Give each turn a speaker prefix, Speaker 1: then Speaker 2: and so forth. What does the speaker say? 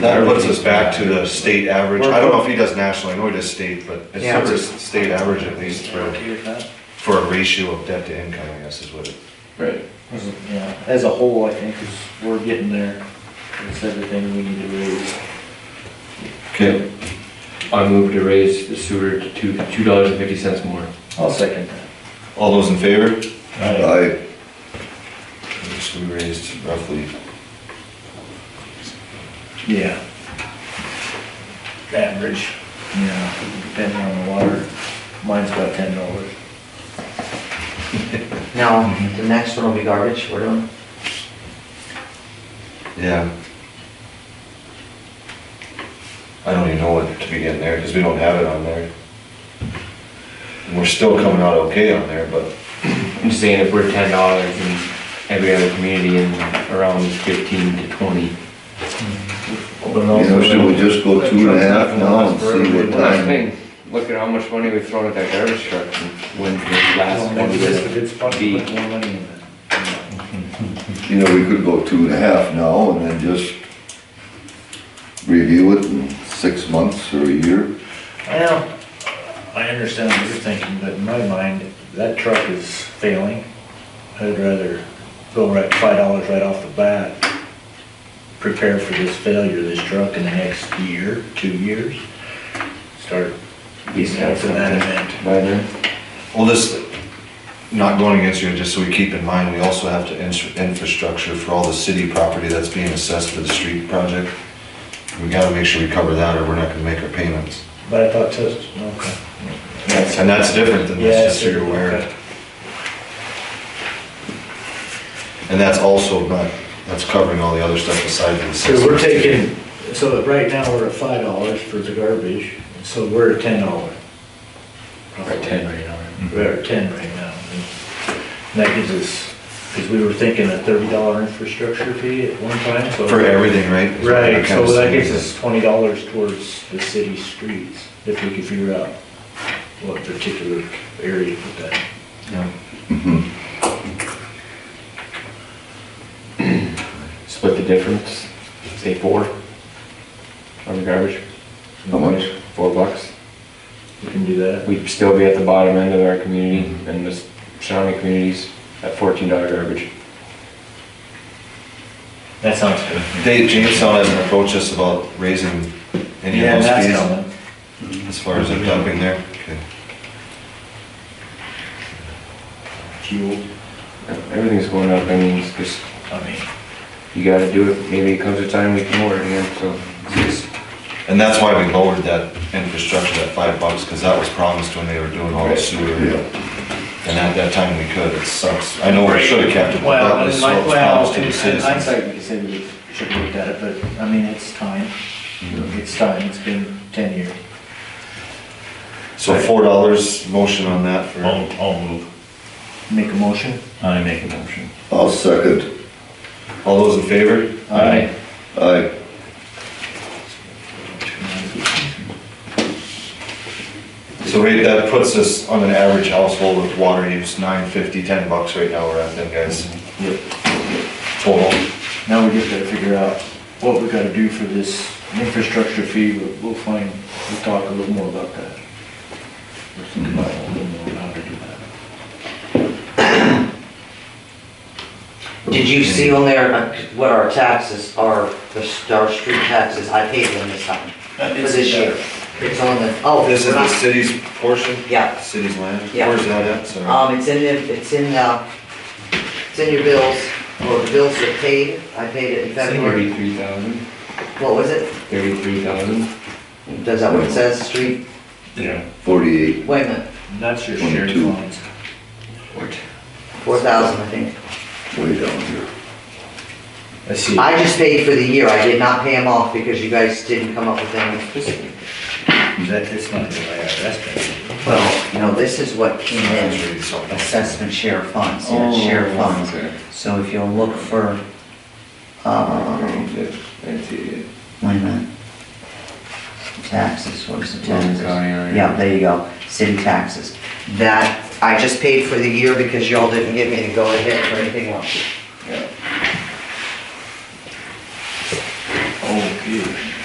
Speaker 1: That puts us back to the state average. I don't know if he does national, I know he does state, but it's
Speaker 2: Yeah.
Speaker 1: sort of state average at least for, for a ratio of debt to income, I guess is what it.
Speaker 3: Right.
Speaker 4: Yeah, as a whole, I think is, we're getting there. It's everything we need to raise.
Speaker 3: Okay. I move to raise the sewer to two, two dollars and fifty cents more.
Speaker 4: I'll second that.
Speaker 1: All those in favor?
Speaker 5: I,
Speaker 1: So we raised roughly,
Speaker 4: Yeah. Average. Yeah, depending on the water. Mine's about ten dollars.
Speaker 2: Now, the next one will be garbage, we're doing.
Speaker 1: yeah. I don't even know what to begin there, because we don't have it on there. And we're still coming out okay on there, but
Speaker 3: I'm just saying if we're ten dollars in every other community and around fifteen to twenty.
Speaker 5: you know, should we just go two and a half now and see what
Speaker 3: Last
Speaker 5: time?
Speaker 3: thing, look at how much money we've thrown at that garbage truck and when's the last one
Speaker 4: a
Speaker 3: gonna
Speaker 4: good spot
Speaker 3: to be.
Speaker 4: Put more money in that.
Speaker 5: You know, we could go two and a half now and then just review it in six months or a year.
Speaker 4: Well, I understand what you're thinking, but in my mind, that truck is failing. I'd rather go right, five dollars right off the bat, prepare for this failure of this truck in the next year, two years. Start
Speaker 3: be
Speaker 4: Yeah, for that event.
Speaker 3: By then.
Speaker 1: Well, this, not going against you, just so we keep in mind, we also have to ins- infrastructure for all the city property that's being assessed for the street project. We gotta make sure we cover that or we're not gonna make our payments.
Speaker 4: But I thought just, okay.
Speaker 1: And that's different than
Speaker 4: Yeah,
Speaker 1: this, just so
Speaker 4: sure,
Speaker 1: you're aware.
Speaker 4: okay.
Speaker 1: And that's also not, that's covering all the other stuff aside from the.
Speaker 4: So we're taking, so right now we're at five dollars for the garbage, so we're at ten dollar.
Speaker 3: Or ten right now.
Speaker 4: We're at ten right now. And that gives us, because we were thinking a thirty dollar infrastructure fee at one time, so.
Speaker 1: For everything, right?
Speaker 4: Right, so
Speaker 1: Kinda
Speaker 4: that gives
Speaker 1: same.
Speaker 4: us twenty dollars towards the city streets, if we could figure out what particular area to put that.
Speaker 1: Yeah.
Speaker 5: Mm-hmm.
Speaker 3: Split the difference, say four on the garbage.
Speaker 5: How much?
Speaker 3: Four bucks.
Speaker 4: We can do that.
Speaker 3: We'd still be at the bottom end of our community and the surrounding communities at fourteen dollar garbage.
Speaker 4: That sounds good.
Speaker 1: Dave, Jamestown hasn't approached us about raising any
Speaker 4: Yeah,
Speaker 1: of
Speaker 4: that's
Speaker 1: those
Speaker 4: coming.
Speaker 1: fees as far as their dumping there. Okay.
Speaker 4: Fuel,
Speaker 3: Everything's going up, I mean, it's just,
Speaker 4: I mean.
Speaker 3: you gotta do it, maybe it comes a time we can order again, so. it's just-
Speaker 1: And that's why we lowered that infrastructure, that five bucks, because that was promised when they were doing all the sewer.
Speaker 5: Yeah.
Speaker 1: And at that time, we could, it sucks. I know we should have kept it, but that
Speaker 4: Well,
Speaker 1: was
Speaker 4: in
Speaker 1: so
Speaker 4: my, well,
Speaker 1: promised to
Speaker 4: in
Speaker 1: the
Speaker 4: in
Speaker 1: citizens.
Speaker 4: hindsight, we could say we should have looked at it, but, I mean, it's time.
Speaker 1: Mm-hmm.
Speaker 4: It's time, it's been ten years.
Speaker 1: So four dollars, motion on that for,
Speaker 6: I'll, I'll move.
Speaker 4: Make a motion?
Speaker 6: I make a motion.
Speaker 5: I'll second.
Speaker 1: all those in favor?
Speaker 4: Aye.
Speaker 5: I,
Speaker 1: So wait, that puts us on an average household with water use, nine fifty, ten bucks right now, we're at then, guys.
Speaker 4: Yep.
Speaker 1: Total.
Speaker 4: Now we just gotta figure out what we gotta do for this infrastructure fee, but we'll find, we'll talk a little more about that. We'll think about a little more how to do that.
Speaker 2: Did you see on there uh, what our taxes are, the s- our street taxes, I paid them this time, for this year. It's on the, oh.
Speaker 1: This is
Speaker 2: we're
Speaker 1: the
Speaker 2: not-
Speaker 1: city's portion?
Speaker 2: Yeah.
Speaker 1: City's land?
Speaker 2: Yeah.
Speaker 1: Where's that at, sorry?
Speaker 2: Um, it's in, the- it's in, uh, it's in your bills, or the bills that paid, I paid it in February.
Speaker 3: Thirty-three thousand,
Speaker 2: What was it?
Speaker 3: thirty-three thousand.
Speaker 2: Does that what it says, street,
Speaker 6: Yeah.
Speaker 5: forty-eight,
Speaker 2: wait a minute,
Speaker 4: And that's your shared
Speaker 5: Twenty-two.
Speaker 4: funds.
Speaker 2: four thousand, I think.
Speaker 5: way down here.
Speaker 4: I see.
Speaker 2: I just paid for the year, I did not pay them off because you guys didn't come up with any.
Speaker 4: That, it's not the IRS. that's-
Speaker 2: Well, no, this is what came
Speaker 1: That's
Speaker 2: in,
Speaker 1: really something.
Speaker 2: assessment share of funds, yeah, share of funds.
Speaker 3: Okay.
Speaker 2: So if you'll look for, uh,
Speaker 3: I see it.
Speaker 2: wait a minute. Taxes, where's the
Speaker 3: Logan
Speaker 2: taxes?
Speaker 3: County, all right.
Speaker 2: oh, Yeah, there you go, city taxes. That, I just paid for the year because y'all didn't give me to go ahead for anything else.